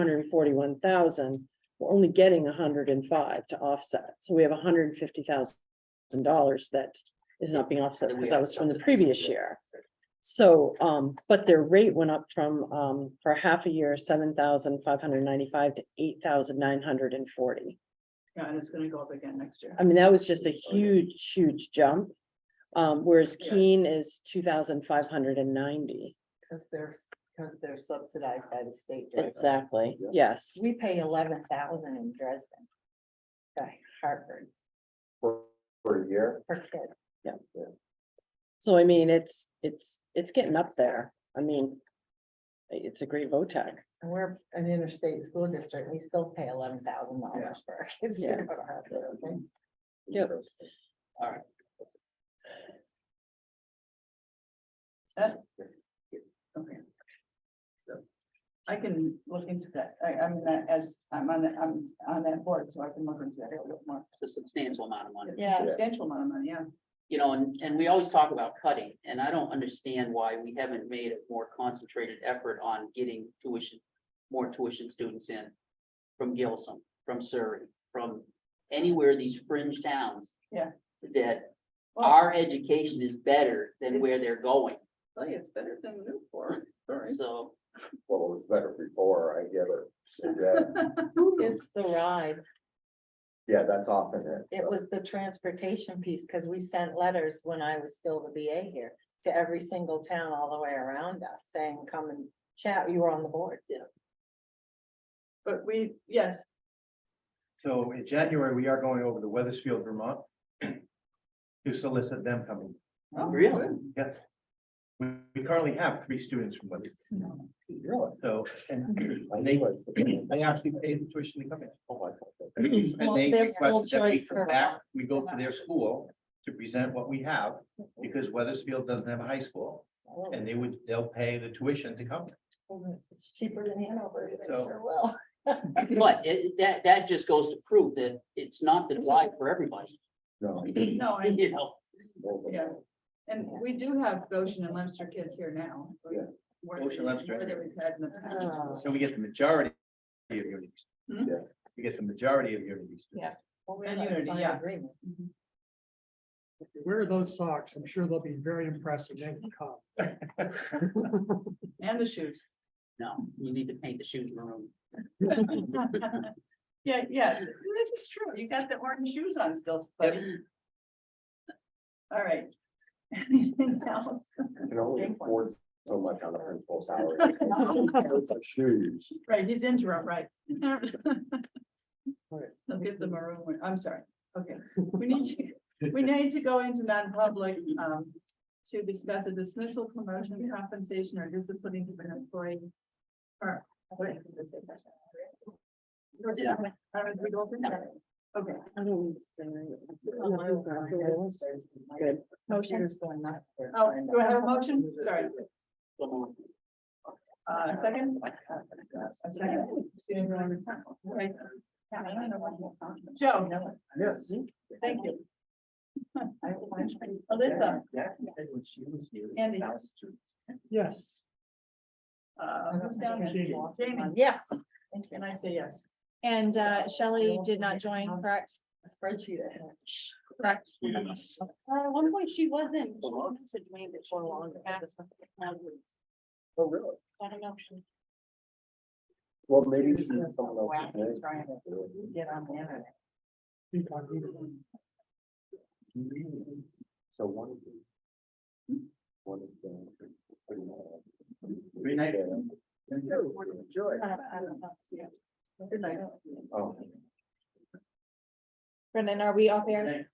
hundred and forty-one thousand, we're only getting hundred and five to offset. So we have hundred and fifty thousand dollars that is not being offset because that was from the previous year. So, um, but their rate went up from, um, for half a year, seven thousand five hundred ninety-five to eight thousand nine hundred and forty. Yeah, and it's gonna go up again next year. Oh, I mean, that was just a huge, huge jump. Um, whereas Keene is two thousand five hundred and ninety. Because they're, because they're subsidized by the state. Dresden. Exactly, yes. We pay eleven thousand in Dresden. To Harvard For, for a year, for kids. So I mean, it's, it's, it's getting up there. I mean, it's a great VOTAC. And we're an interstate school district. We still pay eleven thousand dollars for our kids to Yeah. go to Harvard. okay? Yep. Okay. So I can look into that. I, I mean, I- as, I'm on, that- I'm on that board, so I can look into that a little bit more. It's a substantial amount of money. It's a Substantial amount of money, yeah. You know, and, and we always talk about cutting, and I don't understand why we haven't made a more concentrated effort on getting tuition, more tuition students in from Gilsum, from Surrey, from anywhere these fringe towns. Yeah. That Well, our education is better than where they're going, Tell you, it's better than Newport, sorry. so. well, it was better before, I get it. Yeah, Hmm. It's the ride. Yeah, that's often it. It was the transportation piece, because we sent letters when I was still the BA here to every single town all the way around us saying, come and chat. You were on the board. But we, yes, So in January, we are going over to Weathersfield, Vermont. To solicit them coming. Oh, Really? Yes. We we currently have three students from Weathersfield, Really? so, and I they, knew it. they actually paid the tuition to come in. Mm-hmm. Oh, I thought that- Well, And they their school requested that we choice come for- back, we go to their school to present what we have, Mm-hmm. because Weathersfield doesn't have a high school. And they would, they'll pay the tuition to come. It's cheaper than Hanover. They So- sure will. But it, that, that just goes to prove that it's not the drive for everybody, No. no, I, you know? no, but- yeah. And we do have Goshen and Leinster kids here now. Yeah. More than Goshen, Leominster. more than we've had in the past. Uh, So we get the majority of unities. Hmm? Yeah. We get the majority of unities. Yeah. well, we And have a unity, signed yeah. agreement. Wear those socks. I'm sure they'll be very impressed when they come. And the shoes. No, you need to paint the shoes maroon. Yeah, yeah, this is true. You got the orange shoes on still, buddy. All right. Anything else? You Can only Big one. afford so much on a principal salary. It's like Shoes. Right, he's interim, right? All right. I'll get the maroon one. I'm sorry. Okay, we need to, we need to go into non-public um to discuss a dismissal, promotion, compensation, or disciplining of an employee. Or, wait, that's it, that's it. Yeah. All right, we go for that. Okay, I don't understand. Good. Motion is going nuts. for- oh, do I have a motion? Sorry, So, uh, a second? A second. Right. Joe, Yes. thank you. I was watching. Alyssa, Andy. Yes. uh, who's down there? Jamie, Yes. Uh, and I say yes. And uh, Shelley did not join, correct? A Spreadsheet. Correct. one point she wasn't. Oh, really? I don't know. if she Well, maybe she's someone else's Wow, name. trying to Get on the internet. Keep on reading. So one of the. One of the. Three nights. Enjoy. Uh, I don't know. Yeah. Good night. Oh. Brendan, are we off air?